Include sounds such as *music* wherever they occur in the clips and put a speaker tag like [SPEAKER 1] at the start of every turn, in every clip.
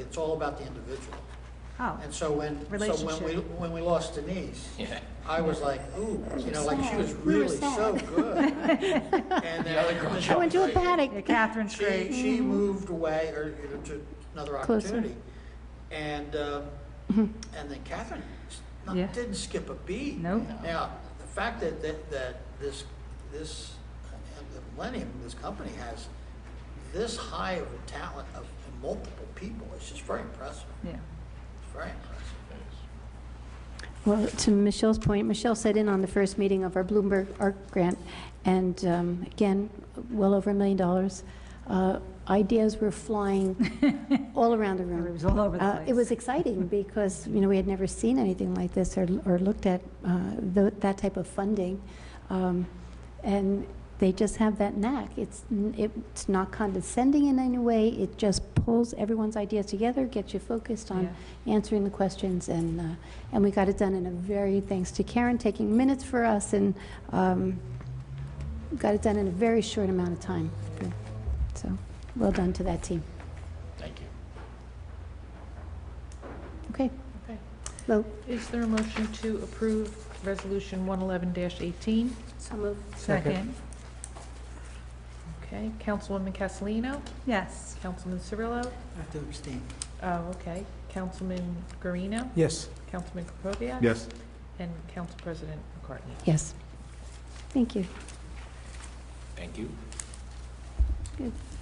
[SPEAKER 1] It's all about the individual.
[SPEAKER 2] Oh,
[SPEAKER 1] And so when, so when we,
[SPEAKER 2] Relationship.
[SPEAKER 1] when we lost Denise,
[SPEAKER 3] Yeah.
[SPEAKER 1] I was like, ooh, you know, like she was
[SPEAKER 4] Sad. We were
[SPEAKER 1] really so
[SPEAKER 4] sad. *laughs*
[SPEAKER 1] good. And
[SPEAKER 3] The *laughs* other girl
[SPEAKER 4] I
[SPEAKER 1] then
[SPEAKER 4] went to a
[SPEAKER 3] Right.
[SPEAKER 2] yeah,
[SPEAKER 4] paddock.
[SPEAKER 2] Catherine's
[SPEAKER 1] she,
[SPEAKER 2] great.
[SPEAKER 1] she moved away or you know, to another
[SPEAKER 4] Closer. Mm-hmm.
[SPEAKER 1] opportunity. And, um, and then Catherine s- not-
[SPEAKER 2] Yeah.
[SPEAKER 1] didn't skip a beat.
[SPEAKER 2] Nope.
[SPEAKER 1] Now, the fact that, that, that this, this, uh, the Millennium, this company has this high of a talent of multiple people, it's just very impressive.
[SPEAKER 2] Yeah.
[SPEAKER 1] It's very impressive.
[SPEAKER 4] Well, to Michelle's point, Michelle sat in on the first meeting of our Bloomberg Art Grant, and um, again, well over a million dollars. Uh, Ideas were flying all around the room.
[SPEAKER 2] It was all over the
[SPEAKER 4] Uh, It
[SPEAKER 2] place.
[SPEAKER 4] was
[SPEAKER 2] *laughs*
[SPEAKER 4] exciting because, you know, we had never seen anything like this or, or looked at uh, tho- that type of funding. Um, And they just have that knack. It's, n- it's not condescending in any way. It just pulls everyone's ideas together, gets you focused on answering the questions, and, uh, and we got it done in a very, thanks to Karen taking minutes for us, and um, got it done in a very short amount of time. So, well done to that team.
[SPEAKER 3] Thank you.
[SPEAKER 4] Okay,
[SPEAKER 5] Okay.
[SPEAKER 4] Lou?
[SPEAKER 5] Is there a motion to approve Resolution 111-18?
[SPEAKER 4] So moved.
[SPEAKER 2] Second,
[SPEAKER 5] Okay, Councilwoman Castellino,
[SPEAKER 2] yes.
[SPEAKER 5] Councilman Cirillo,
[SPEAKER 1] I have to abstain.
[SPEAKER 5] oh, okay, Councilman Guarino,
[SPEAKER 6] Yes.
[SPEAKER 5] Councilman Krokoviac?
[SPEAKER 6] Yes.
[SPEAKER 5] And Council President McCartney.
[SPEAKER 4] Yes. Thank you.
[SPEAKER 3] Thank you.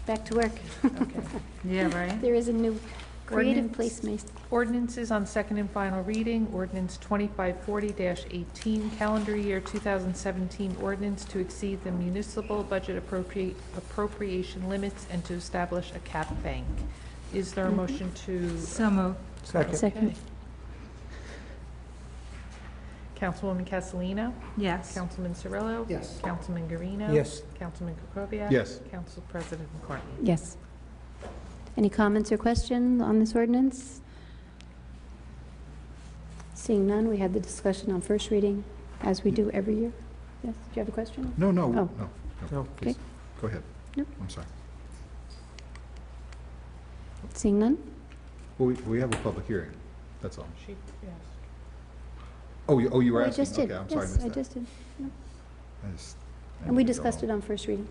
[SPEAKER 4] Back to work. *laughs*
[SPEAKER 5] Okay.
[SPEAKER 2] Yeah, right?
[SPEAKER 4] There is a new creative
[SPEAKER 5] Ordinance.
[SPEAKER 4] placement.
[SPEAKER 5] Ordinances on second and final reading, ordinance 2540-18, calendar year 2017 ordinance to exceed the municipal budget appropriate appropriation limits and to establish a cap bank. Is there a motion to?
[SPEAKER 2] So moved,
[SPEAKER 6] Second.
[SPEAKER 4] Second.
[SPEAKER 5] Okay. Councilwoman Castellino?
[SPEAKER 2] yes.
[SPEAKER 5] Councilman Cirillo?
[SPEAKER 1] Yes.
[SPEAKER 5] Councilman Guarino?
[SPEAKER 6] Yes.
[SPEAKER 5] Councilman Krokoviac?
[SPEAKER 6] Yes.
[SPEAKER 5] Council President McCartney?
[SPEAKER 4] Yes. Any comments or questions on this ordinance? Seeing none, we had the discussion on first reading, as we do every year. Yes, do you have a question?
[SPEAKER 7] No, no,
[SPEAKER 4] Oh.
[SPEAKER 7] no, no,
[SPEAKER 6] No.
[SPEAKER 7] please, go ahead.
[SPEAKER 4] No.
[SPEAKER 7] I'm sorry.
[SPEAKER 4] Seeing none?
[SPEAKER 7] Well, we, we have a public hearing, that's all.
[SPEAKER 5] She, yes.
[SPEAKER 7] Oh, you, oh, you were
[SPEAKER 4] Oh, I
[SPEAKER 7] asking?
[SPEAKER 4] just did.
[SPEAKER 7] Okay, I'm sorry, I
[SPEAKER 4] Yes,
[SPEAKER 7] missed
[SPEAKER 4] I
[SPEAKER 7] that.
[SPEAKER 4] just did.
[SPEAKER 7] I just- I
[SPEAKER 4] And we
[SPEAKER 7] didn't go
[SPEAKER 4] discussed
[SPEAKER 7] home.
[SPEAKER 4] it on first reading.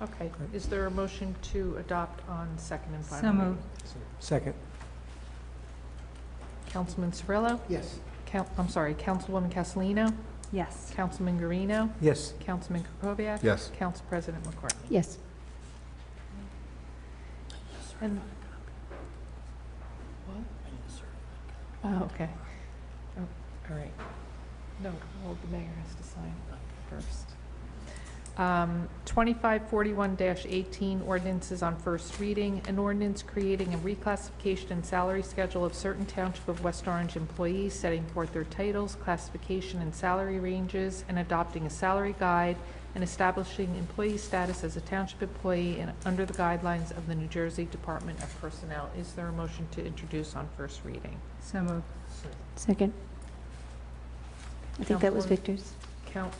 [SPEAKER 5] Okay, is there a motion to adopt on second and final?
[SPEAKER 2] So
[SPEAKER 5] reading?
[SPEAKER 2] moved,
[SPEAKER 6] Second.
[SPEAKER 5] Councilman Cirillo?
[SPEAKER 1] Yes.
[SPEAKER 5] Coun- I'm sorry, Councilwoman Castellino?
[SPEAKER 2] yes.
[SPEAKER 5] Councilman Guarino?
[SPEAKER 6] Yes.
[SPEAKER 5] Councilman Krokoviac?
[SPEAKER 7] Yes.
[SPEAKER 5] Council President McCartney?
[SPEAKER 4] Yes.
[SPEAKER 5] And- What? Oh, okay. Oh, All right. No, well, the mayor has to sign first. Um, 2541-18, ordinances on first reading, an ordinance creating a reclassification and salary schedule of certain Township of West Orange employees, setting forth their titles, classification, and salary ranges, and adopting a salary guide, and establishing employee status as a Township employee and under the guidelines of the New Jersey Department of Personnel. Is there a motion to introduce on first reading?
[SPEAKER 2] So moved,
[SPEAKER 4] Second. I think that was
[SPEAKER 5] Councilwoman-
[SPEAKER 4] Victor's.
[SPEAKER 5] Count,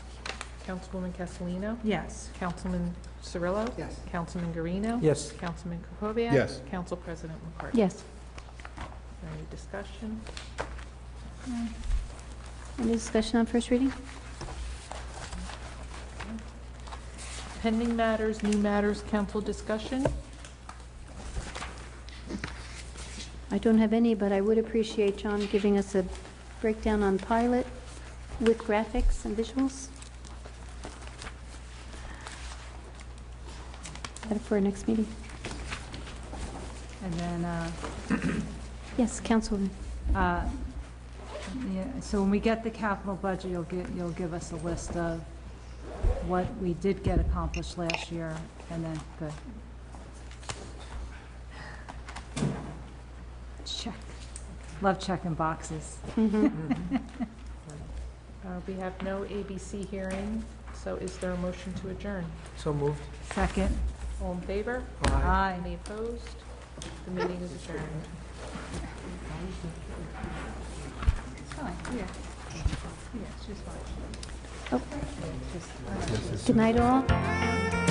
[SPEAKER 5] Councilwoman Castellino?
[SPEAKER 2] yes.
[SPEAKER 5] Councilman Cirillo?
[SPEAKER 1] Yes.
[SPEAKER 5] Councilman Guarino?
[SPEAKER 6] Yes.
[SPEAKER 5] Councilman Krokoviac?
[SPEAKER 7] Yes.
[SPEAKER 5] Council President McCartney?
[SPEAKER 4] Yes.
[SPEAKER 5] Any discussion?
[SPEAKER 4] Any discussion on first reading?
[SPEAKER 5] Pending matters, new matters, council discussion?
[SPEAKER 4] I don't have any, but I would appreciate John giving us a breakdown on pilot with graphics and visuals. Is that for our next meeting?
[SPEAKER 2] And then, uh,
[SPEAKER 4] Yes, Councilwoman.
[SPEAKER 2] uh, yeah, so when we get the capital budget, you'll get, you'll give us a list of what we did get accomplished last year, and then, good. Check. Love checking boxes.
[SPEAKER 4] *laughs*
[SPEAKER 5] Uh, We have no ABC hearing, so is there a motion to adjourn?
[SPEAKER 6] So moved.
[SPEAKER 2] Second,
[SPEAKER 5] All in favor?
[SPEAKER 2] aye.
[SPEAKER 5] Any opposed? The meeting is adjourned.
[SPEAKER 4] Good night, all.